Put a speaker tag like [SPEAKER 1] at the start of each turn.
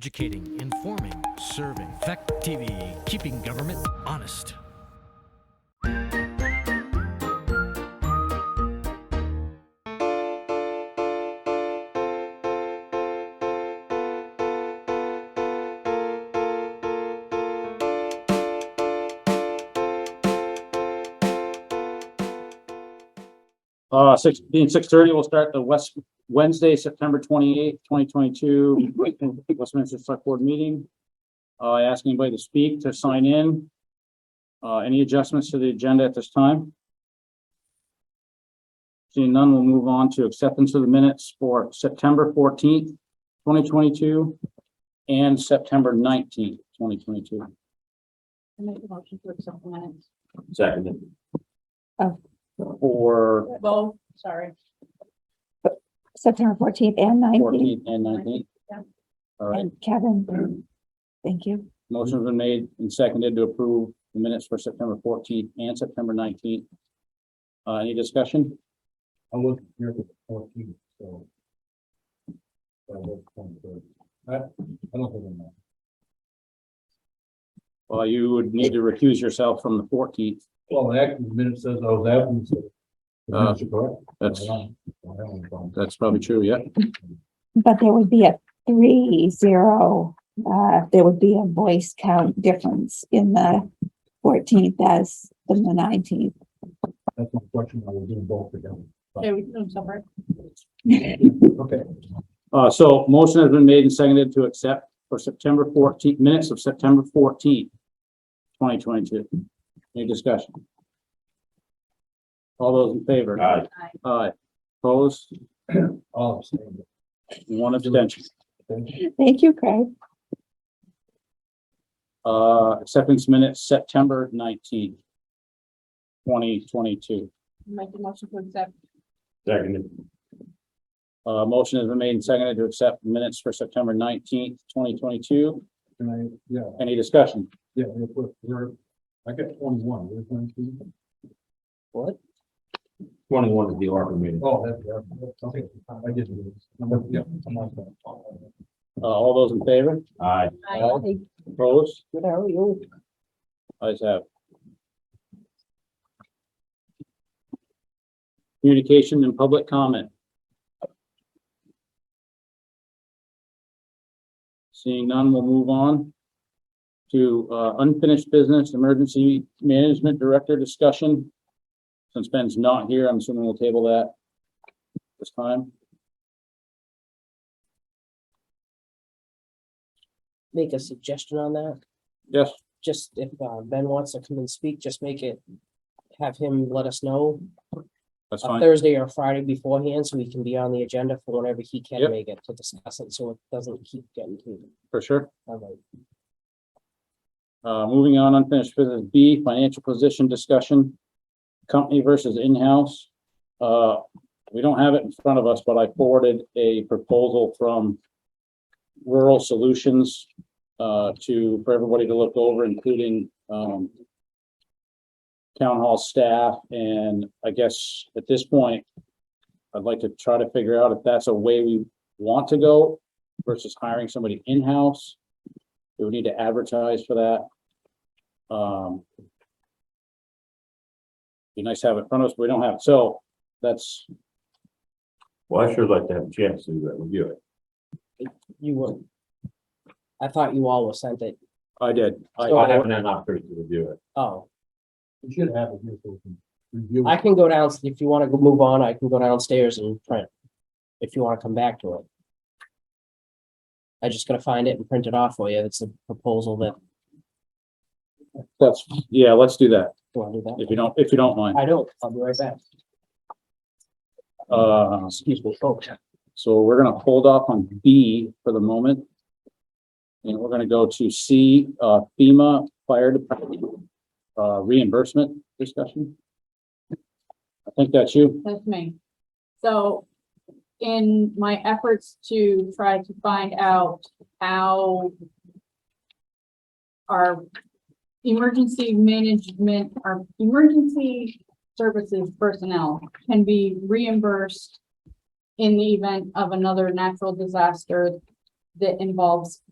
[SPEAKER 1] Educating, informing, serving. Fact TV, keeping government honest.
[SPEAKER 2] Uh, six, being six thirty, we'll start the West, Wednesday, September twenty-eighth, twenty twenty-two, Westminster Select Board Meeting. Uh, I ask anybody to speak, to sign in. Uh, any adjustments to the agenda at this time? Seeing none, we'll move on to acceptance of the minutes for September fourteenth, twenty twenty-two, and September nineteenth, twenty twenty-two.
[SPEAKER 3] I make a motion to accept the minutes.
[SPEAKER 2] Second.
[SPEAKER 4] Oh.
[SPEAKER 2] For
[SPEAKER 3] Bo, sorry.
[SPEAKER 4] September fourteenth and nineteenth,
[SPEAKER 2] fourteenth and nineteenth.
[SPEAKER 3] Yeah.
[SPEAKER 2] All right.
[SPEAKER 4] and Kevin, thank you.
[SPEAKER 2] Motion's been made and seconded to approve the minutes for September fourteenth and September nineteenth. Uh, any discussion?
[SPEAKER 5] I wasn't here for the fourteenth, so. That was twenty-third. I, I don't think I'm not.
[SPEAKER 2] Well, you would need to recuse yourself from the fourteenth.
[SPEAKER 5] Well, the act- the minute says I was absent, so. the
[SPEAKER 2] Uh,
[SPEAKER 5] minutes are correct.
[SPEAKER 2] That's,
[SPEAKER 5] I don't- I don't have any problem.
[SPEAKER 2] that's probably true, yeah.
[SPEAKER 4] But there would be a three zero, uh, there would be a voice count difference in the fourteenth as in the nineteenth.
[SPEAKER 5] That's my question, I was doing both together.
[SPEAKER 3] Okay, we can do them separate.
[SPEAKER 5] Okay.
[SPEAKER 2] Uh, so motion has been made and seconded to accept for September fourteenth, minutes of September fourteenth, twenty twenty-two. Any discussion? All those in favor?
[SPEAKER 5] Aye.
[SPEAKER 2] Aye. Opposed?
[SPEAKER 5] All I'm saying.
[SPEAKER 2] One abstention.
[SPEAKER 4] Thank you, Craig.
[SPEAKER 2] Uh, acceptance minutes, September nineteenth, twenty twenty-two.
[SPEAKER 3] Make a motion to accept.
[SPEAKER 5] Second.
[SPEAKER 2] Uh, motion has been made and seconded to accept minutes for September nineteenth, twenty twenty-two.
[SPEAKER 5] Can I, yeah,
[SPEAKER 2] Any discussion?
[SPEAKER 5] yeah, real quick, we're, I got twenty-one, where's nineteen?
[SPEAKER 2] What?
[SPEAKER 5] Twenty-one is the ARPA meeting. Oh, that's, that's, okay, I get it. Number- yeah, I'm on that.
[SPEAKER 2] Uh, all those in favor?
[SPEAKER 5] Aye.
[SPEAKER 3] Aye.
[SPEAKER 2] Opposed? Ayes have. it. Communication and public comment. Seeing none, we'll move on to uh, unfinished business, emergency management director discussion. Since Ben's not here, I'm assuming we'll table that this time.
[SPEAKER 6] make a suggestion on that?
[SPEAKER 2] Yes,
[SPEAKER 6] Just if uh, Ben wants to come and speak, just make it, have him let us know
[SPEAKER 2] that's
[SPEAKER 6] a
[SPEAKER 2] fine.
[SPEAKER 6] Thursday or Friday beforehand, so we can be on the agenda for whenever he
[SPEAKER 2] Yep.
[SPEAKER 6] can make it to discuss it, so it doesn't keep getting to.
[SPEAKER 2] For sure.
[SPEAKER 6] all right.
[SPEAKER 2] Uh, moving on, unfinished business B, financial position discussion, company versus in-house. Uh, we don't have it in front of us, but I forwarded a proposal from Rural Solutions, uh, to, for everybody to look over, including, um, town hall staff, and I guess at this point, I'd like to try to figure out if that's a way we want to go versus hiring somebody in-house. We would need to advertise for that. Um. Be nice to have it in front of us, but we don't have, it. so that's,
[SPEAKER 7] Well, I sure like to have a chance to do that with you.
[SPEAKER 6] You were. I thought you all were sent it.
[SPEAKER 2] I did. I-
[SPEAKER 7] I haven't had an opportunity to review it.
[SPEAKER 6] Oh,
[SPEAKER 5] We should have it here so we can review.
[SPEAKER 6] I
[SPEAKER 5] it.
[SPEAKER 6] can go down, if you wanna go move on, I can go downstairs and print. If you wanna come back to it. I just gotta find it and print it off for you. It's a proposal that,
[SPEAKER 2] That's, yeah, let's do that,
[SPEAKER 6] do I do that?
[SPEAKER 2] if you don't, if you don't mind.
[SPEAKER 6] I don't, I'll be right back.
[SPEAKER 2] Uh,
[SPEAKER 6] Excuse me, folks.
[SPEAKER 2] so we're gonna hold off on B for the moment. And we're gonna go to C, uh, FEMA Fire Department, uh, reimbursement discussion. I think that's you.
[SPEAKER 3] That's me. So in my efforts to try to find out how our emergency management, our emergency services personnel can be reimbursed in the event of another natural disaster that involves